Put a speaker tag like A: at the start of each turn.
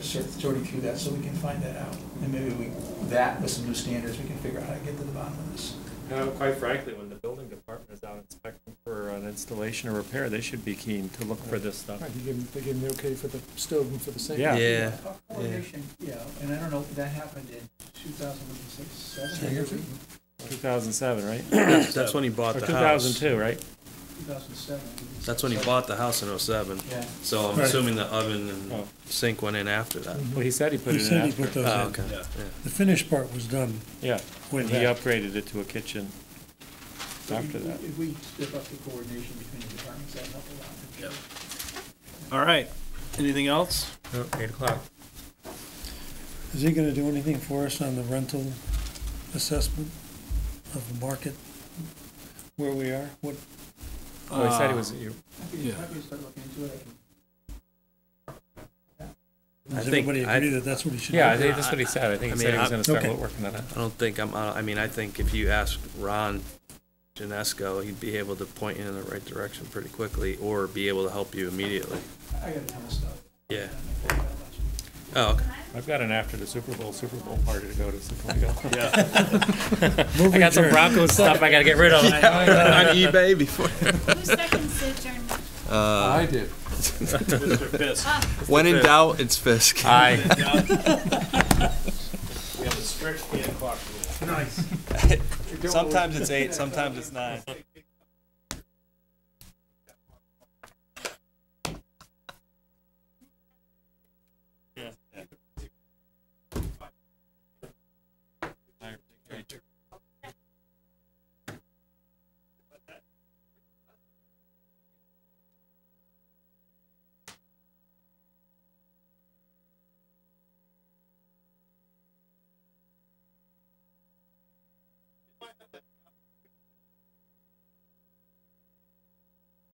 A: Sort sorting through that so we can find that out. And maybe we, that with some new standards, we can figure out how to get to the bottom of this.
B: No, quite frankly, when the building department is out inspecting for an installation or repair, they should be keen to look for this stuff.
C: Right, he gave him, they gave him the okay for the stove and for the sink.
B: Yeah.
D: Yeah.
A: Coordination, yeah, and I don't know, that happened in two thousand and six, seven,
D: Yeah.
A: two
B: 2007, right?
D: That's when he bought
B: Or
D: the house.
B: 2002, right?
A: thousand and seven.
D: That's when he bought the house in '07.
A: Yeah.
D: So I'm
E: Right.
D: assuming the oven and
B: Oh.
D: sink went in after that.
B: Well, he said he put
E: He
B: it in
E: said he put
B: after.
E: those
D: Oh,
E: in.
D: okay.
E: Yeah.
D: Yeah.
E: The finished part was done
B: Yeah,
E: with
B: and he
E: that.
B: upgraded it to a kitchen
A: But
B: after
A: if-
B: that.
A: If we step up the coordination between the departments, that'd help a lot.
D: Yep.
F: All right. Anything else?
D: Oh, Eight o'clock.
E: Is he gonna do anything for us on the rental assessment of the market? Where we are, what,
B: Well, he said he was, you-
A: Happy
F: Yeah.
A: happy to start looking into it, I can
D: I
E: does
D: think-
E: everybody
D: I-
E: agree that that's what he should do?
B: yeah, I think that's what he said. I think
D: I
B: he
D: mean,
B: said he was
D: I-
B: gonna start
E: okay.
B: working on it.
D: I don't think I'm. uh, I mean, I think if you ask Ron Janesco, he'd be able to point you in the right direction pretty quickly, or be able to help you immediately.
A: I got a ton of stuff.
D: Yeah.
A: I can figure out lots of-
D: Oh, okay.
B: I've got an after the Super Bowl, Super Bowl party to go to. so can we go?
F: Yeah.
E: Move
B: I got some
E: adjourned.
B: Broncos stuff I gotta get rid of.
D: On eBay before.
G: Who seconds the adjournment?
D: Uh,
B: did.
F: Mr. Fisk.
D: when in doubt, it's Fisk.
B: Aye.
F: We have a strict eight o'clock rule.
D: Sometimes it's eight. Sometimes it's nine.